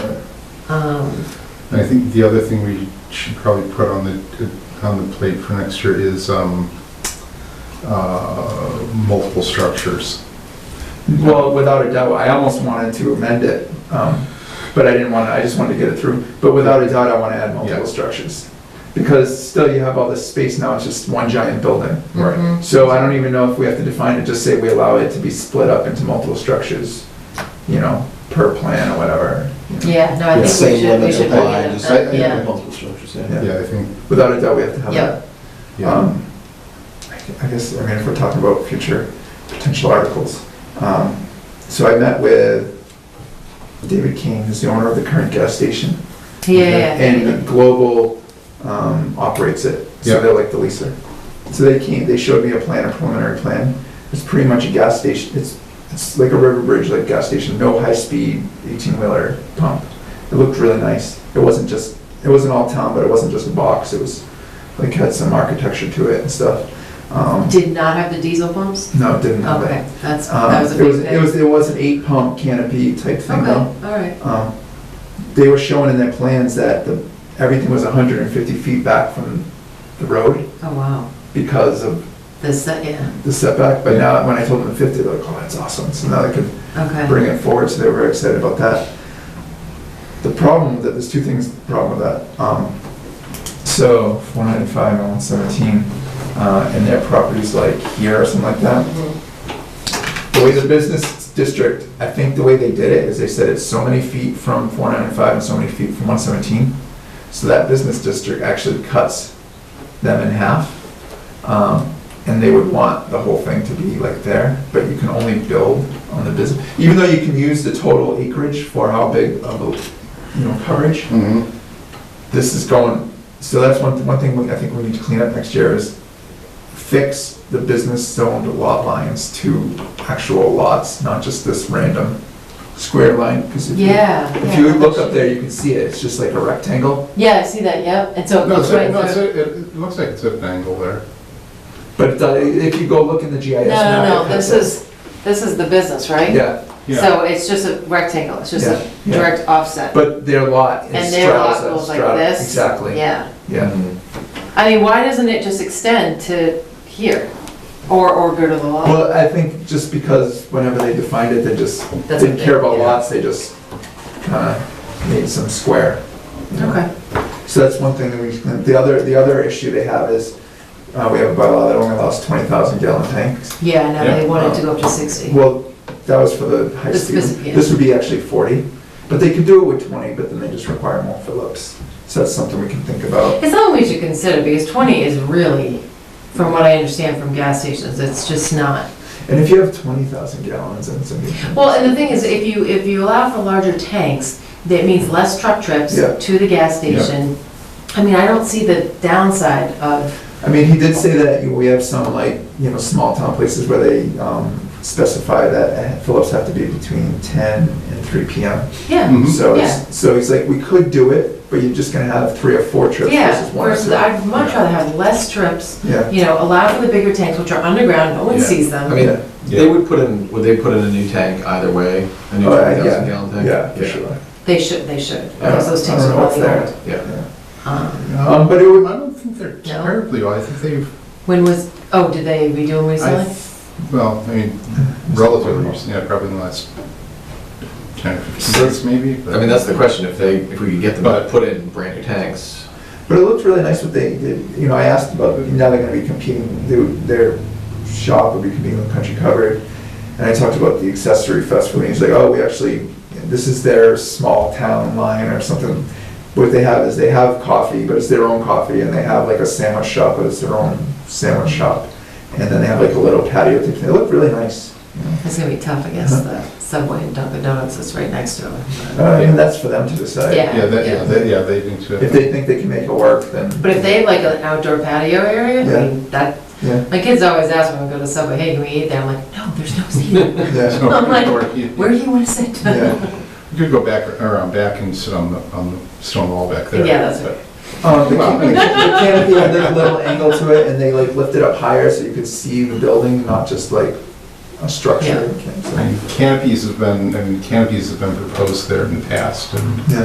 Um, I think the other thing we should probably put on the, on the plate for next year is um, uh, multiple structures. Well, without a doubt, I almost wanted to amend it, um, but I didn't want to, I just wanted to get it through. But without a doubt, I want to add Yeah. multiple structures. Because still you have all this space now, it's just one giant building. Right. Mm-hmm. So I don't even know if we have to define it, just say we allow it to be split up into multiple structures, you know, per plan or whatever. you know. yeah, no, I The think we Same should, we limits should look apply, at just that, yeah. multiple structures, yeah. Yeah. Yeah, I think, Without a doubt, we have to have Yeah. that. yeah. Um, I gu- I guess, I mean, if we're talking about future potential articles. um, So I met with David King, who's the owner of the current gas station. Yeah, yeah, And Global um, operates it, Yeah. so they're like the leaser. So they came, they showed me a plan, a preliminary plan. It's pretty much a gas station, it's, it's like a river bridge, like gas station, no high-speed 18-wheeler pump. It looked really nice. It wasn't just, it wasn't all town, but it wasn't just a box. It was, like, had some architecture to it and stuff. Um, yeah. Did not have the diesel pumps? No, it didn't have it. Okay, that's, Um, that was a It was, big it thing. was, it was an eight-pump canopy type thing Okay, though. all right. Um, They were showing in their plans that the, everything was 150 feet back from the road Oh, wow. because of This, uh, yeah, the setback, but now, when I told them the 50, they're like, oh, that's awesome, so now they could okay. bring it forward, so they were very excited about that. The problem, with that there's two things, problem with that. Um, So, 195 and 117, uh, and their properties like here or something like that, Mhm. the way the business district, I think the way they did it is they said it's so many feet from four ninety-five and so many feet from one seventeen. So that business district actually cuts them in half. Um, and they would want the whole thing to be like there, but you can only build on the business, even though you can use the total acreage for how big of a, you know, coverage Mhm. this is going, so that's one, one thing we- I think we need to clean up next year is fix the business zoned lot lines to actual lots, not just this random square line, because if you, Yeah. if yeah. you look up there, you can see it, it's just like a rectangle, Yeah, I see that, yep, and so it No, goes it's, right a- no, it's, through. a- it it looks like it's at an angle there. but it does- if you go look in the GIS No, map. no, it no, has this is, this is the business, that. right? Yeah, So it's just a rectangle, it's just a Yeah, yeah. direct offset. but their lot is And their lot straddles, that goes like straddle- this? exactly, Yeah. yeah. Mm-hmm. I mean, why doesn't it just extend to here? Or, or go to the law? Well, I think just because whenever they defined it, they just That's didn't what care they- about yeah. lots, they just kind of made some square. you know? Okay. So that's one thing that we, the other, the other issue they have is, uh, we have a bylaw that only allows twenty thousand gallon tanks. Yeah, no, they Yeah. wanted to go up to 60. Well, that was for the high This- speed. this- yeah. This would be actually forty, but they could do it with twenty, but then they just require more fill-ups. So that's something we can think about. It's something we should consider, because 20 is really, from what I understand from gas stations, it's just not. And if you have twenty thousand gallons and some. Well, and the thing is, if you, if you allow for larger tanks, that means less truck trips Yeah. to the gas Yeah. station. I mean, I don't see the downside of, I mean, he did say that we have some like, you know, small town places where they um, specify that fill-ups have to be between 10 and 3 PM. yeah, Mhm. So, it's- so he's like, we could do it, but you're just gonna have three or four trips yeah, versus one or versus, two. I'd much rather have less trips, Yeah. you know, allow for the bigger tanks, which are underground, no one Yeah. sees I them. mean, Yeah, they would put in, would they put in a new tank either way? A new Oh, yeah, 20,000 gallon tank? yeah, for sure. They should, they should, Yeah. because those I don't tanks are know what's probably there. old. Yeah. Um, Um, But it would, I don't think they're terribly, old. I think they've, When was, oh, did they redo them I, recently? well, I mean, relatively recent, yeah, probably in the last 10, or 15 years maybe. but- I mean, that's the question, if they, if we could get them to But- put in brand new tanks. but it looked really nice what they did, you know, I asked about, now they're gonna be competing, they would- their shop would be competing with Country Covered. And I talked about the accessory festival, and he's like, oh, we actually, this is their small town line or something. What they have is they have coffee, but it's their own coffee, and they have like a sandwich shop, but it's their own sandwich shop. And then they have like a little patio, thing. they look really nice. you know. It's gonna be tough, I guess, Uh-huh. the Subway and Dunkin' Donuts is right next to it. but- Uh, and that's for them to decide. Yeah. Yeah, that, yeah, Yeah. they, yeah, they do too. If they think they can make it work, then. But if they have like an outdoor patio area, I mean, that, Yeah, my kids always ask when we go to Subway, hey, can we eat there? I'm like, no, there's no seating. yeah, I'm like, Where You do you wanna sit? yeah. could go back, around back and sit on the, on the stone wall back there. Yeah, that's right. Um, the ca- the canopy had like a little angle to it, and they like lift it up higher so you could see the building, not just like a structure. Yeah. Okay, so- And Canopies have been, I mean, canopies have been proposed there in the past, and